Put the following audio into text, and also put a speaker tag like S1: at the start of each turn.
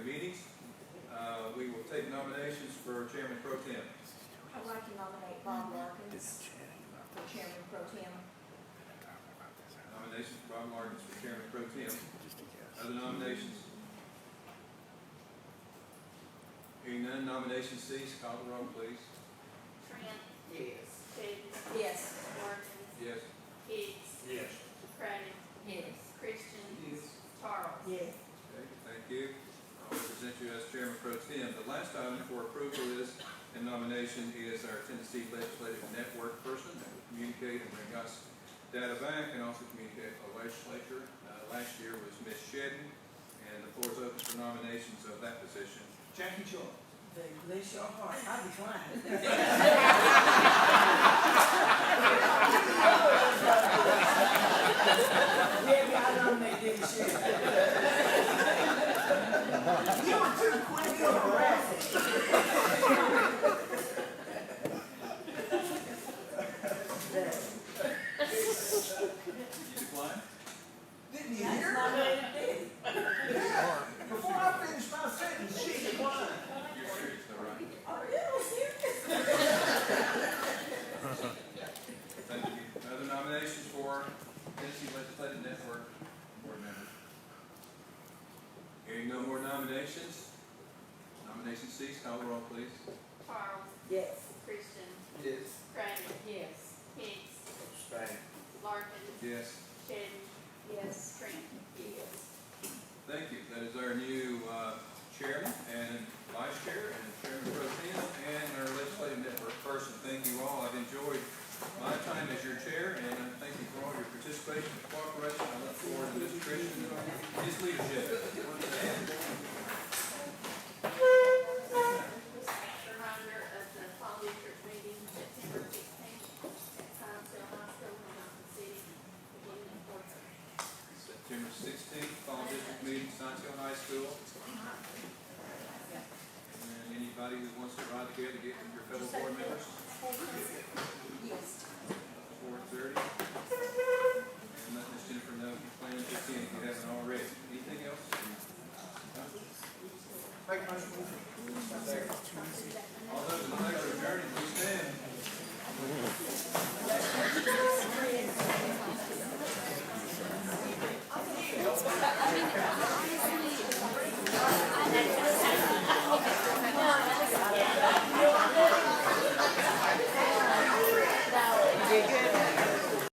S1: Uh, nominations for Chairman Pro Tem?
S2: I'd like to nominate Bob Larkins for chairman pro tem.
S1: Nominations for Bob Martins for Chairman Pro Tem. Other nominations? Hearing none, nomination ceased. Call the roll, please.
S3: Trent,
S4: Yes.
S3: Davis,
S2: Yes.
S3: Morgan,
S1: Yes.
S3: Hicks,
S5: Yes.
S3: Craddock,
S2: Yes.
S3: Christian,
S4: Yes.
S3: Charles.
S2: Yes.
S1: Okay, thank you. I'll present you as Chairman Pro Tem. The last item for approval is, and nomination is our Tennessee Legislative Network person that will communicate and bring us data back and also communicate with the legislature. Uh, Last year was Ms. Shedden, and the floor is open for nominations of that position.
S4: Jackie Jones.
S6: Bless your heart, I declined. Maybe I nominate Debbie Sheridan. You were too quick to harass it.
S1: You decline?
S4: Didn't you
S6: That's
S4: hear?
S6: my way to do it.
S4: Yeah. Before I finished my sentence, she declined.
S1: You're serious, though, right?
S6: Are you serious?
S1: Thank you. Other nominations for Tennessee Legislative Network Board members? Hearing no more nominations, nomination ceased, call the roll, please.
S3: Charles,
S6: Yes.
S3: Christian,
S4: Yes.
S3: Craddock,
S6: Yes.
S3: Hicks,
S5: Abstain.
S3: Larkin,
S1: Yes.
S3: Shedden,
S2: Yes.
S3: Trent.
S6: Yes.
S1: Thank you. That is our new uh, chairman and vice chair and chairman pro tem and our legislative network person. Thank you all. I've enjoyed my time as your chair and I thank you for all your participation and cooperation. I look forward to Mr. Christian and his leadership.
S3: Reminder of the fall district meeting September sixteenth at Science Hill High School in Mountain City, beginning at four thirty.
S1: September sixteenth, fall district meeting, Science Hill High School. And anybody who wants to ride together, get with your fellow board members.
S2: Yes.
S1: four thirty. And let Ms. Jennifer know if you plan to attend, if you haven't already. Anything else?
S4: Make a motion.
S1: Second.